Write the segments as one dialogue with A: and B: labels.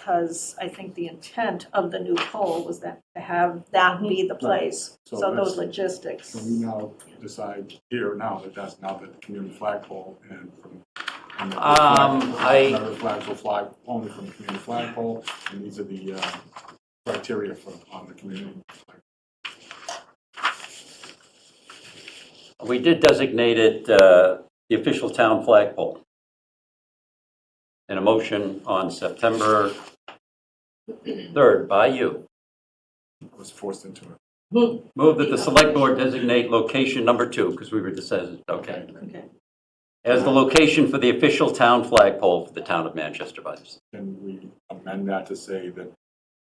A: because I think the intent of the new pole was that to have that be the place.
B: So
A: So those
B: that's-
A: logistics.
B: So we now decide here now that that's now the community flagpole and from. and the
C: Um,
B: flag-
C: I-
B: Another flags will fly only from the community flagpole, and these are the uh, criteria for, on the community. flag.
D: We did designate it uh, the official town flagpole. In a motion on September 3rd by you.
B: I was forced into it.
D: Move that the select board designate location number two, because we were just says, okay,
A: Okay.
D: as the location for the official town flagpole for the town of Manchester by the
B: Can we amend that to say that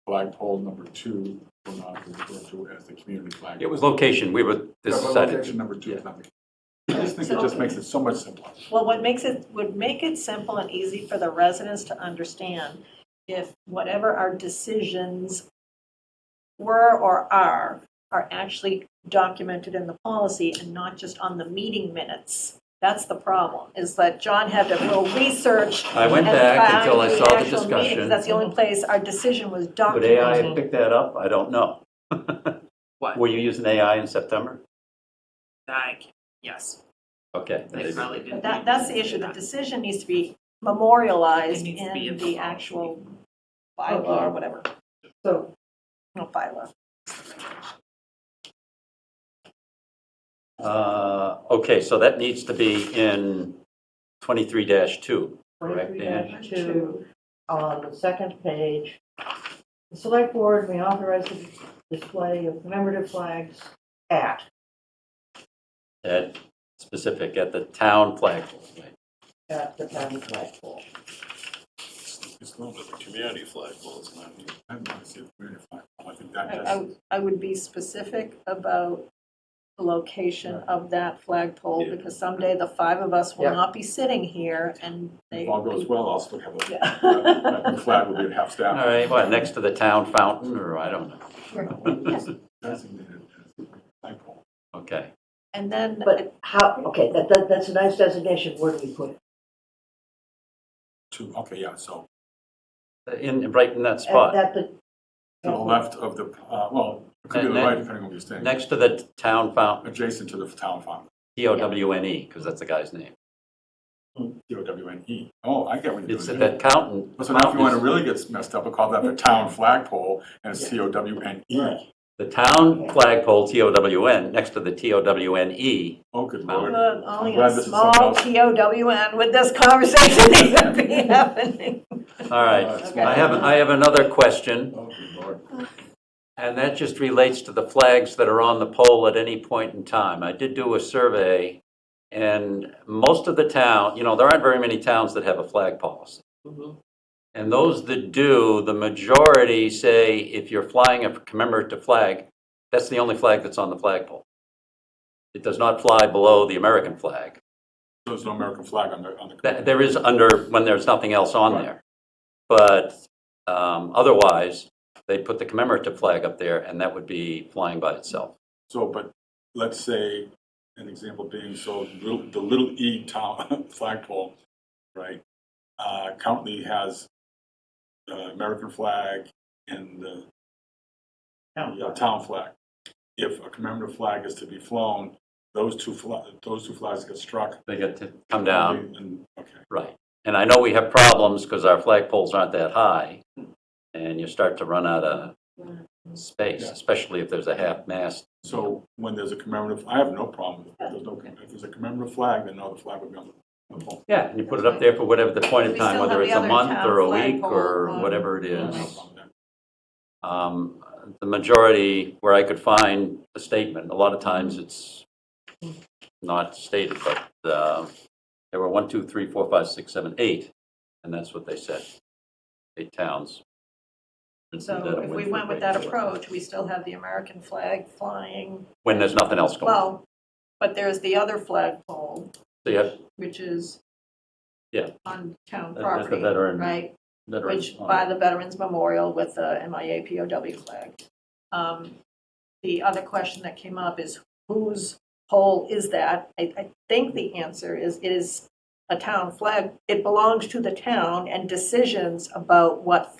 B: flagpole number two will not be referred to as the community flagpole?
D: It was location, we were
B: Yeah, but
D: decided.
B: Location number two is not the. I just think it just makes it so much simpler.
A: Well, what makes it, would make it simple and easy for the residents to understand if whatever our decisions were or are, are actually documented in the policy and not just on the meeting minutes. That's the problem, is that John had to real research.
D: I went
A: and
D: back
A: find
D: until I saw the
A: actual meetings.
D: discussion.
A: That's the only place our decision was
D: Would AI
A: documented.
D: have picked that up? I don't know.
C: What?
D: Were you using AI in September?
C: I, yes,
D: Okay.
C: they probably didn't.
A: But That, that's the issue, the
C: that.
A: decision needs to be memorialized
C: It needs to be
A: in
C: in the
A: the
C: policy.
A: actual bylaw or whatever,
E: So,
A: no bylaw.
D: Uh, Okay, so that needs to be in 23-2, correct,
E: twenty-three
D: Dan?
E: two, on um, the second page. The select board may authorize the display of commemorative flags at,
D: At, specific, at the town flagpole. right?
E: at the town flagpole.
B: It's not,
F: But the community flagpole is not.
B: I don't want to see a community flagpole. I think
A: I-
B: that
A: I
B: just,
A: would- I would be specific about the location of that flagpole,
F: Yeah.
A: because someday the five of us will
E: Yeah.
A: not be sitting here and they.
B: if all goes well, I'll still have a
A: Yeah.
B: The flag will be at half
D: All
B: staff.
D: right, what, next to the town fountain, or I don't know.
B: Designated as flagpole.
D: Okay.
A: And then,
E: But how, okay, that, that, that's a nice designation, where do we put it?
B: Two, okay, yeah, so
D: In, right in that
E: At-
D: spot,
E: At the.
B: to the left of the, uh, well, it could be to the right depending on where you're standing.
D: next to the town fountain,
B: Adjacent to the town farm,
D: T-O-W-N-E, because E, that's the guy's name.
B: D O W N E. Oh, I get what you're
D: Hmm. It's
B: doing.
D: at
B: there.
D: that fountain.
B: Well, So now if you want to
D: fountain is-
B: really get messed up, we call that the town flagpole and it's C O W N E.
D: The town flagpole, T-O-W-N, next to the T-O-W-N-E,
B: Oh, good
D: Mountain.
B: lord.
A: look, only
B: glad
A: a
B: this is
A: small
B: something
A: TOWN with this conversation even be happening.
D: All right,
B: Uh,
D: I have, I have another question,
B: Oh, good lord.
D: and that just relates to the flags that are on the pole at any point in time. I did do a survey, and most of the town, you know, there aren't very many towns that have a flag policy.
C: Mhm.
D: And those that do, the majority say if you're flying a commemorative flag, that's the only flag that's on the flagpole. It does not fly below the American flag.
B: There's no American flag on the, on the.
D: Th- There is under, when there's nothing else on
B: Right.
D: there. But um, otherwise, they put the commemorative flag up there, and that would be flying by itself.
B: So, but let's say, an example being, so little- the little E town flagpole, right? uh, Currently has the American flag and the yeah, town flag. If a commemorative flag is to be flown, those two, fla- those two flags get struck.
D: They get to come down,
B: And, okay,
D: right. And I know we have problems because our flagpoles aren't that high, and you start to run out of space,
B: Yeah.
D: especially if there's a half-mast.
B: so when there's a commemorative, I have no problem, if there's no, if there's a commemorative flag, then no, the flag would be on the pole.
D: Yeah, and you put it up there for whatever the point of
A: We
D: time,
A: still
D: whether
A: have
D: it's
A: the
D: a
A: other
D: month
A: town
D: or a week
A: flagpole um,
D: or
A: on-
D: whatever it
B: I have
D: is.
B: no problem with that.
D: um, the majority where I could find the statement, a lot of times it's not stated, but uh, there were one, two, three, four, five, six, seven, eight, and that's what they said, eight towns.
A: So if we went with that approach, we still have the American flag flying,
D: When there's nothing else going on.
A: well, but there's the other flagpole,
D: So you have
A: which is
D: Yeah.
A: on town
D: That- that's the
A: property,
D: veteran-
A: right?
D: veterans
A: which
D: on
A: by
D: it.
A: the Veterans Memorial with the MIA POW flag. Um, The other question that came up is whose pole is that? I, I think the answer is it is a town flag. It belongs to the town and decisions about what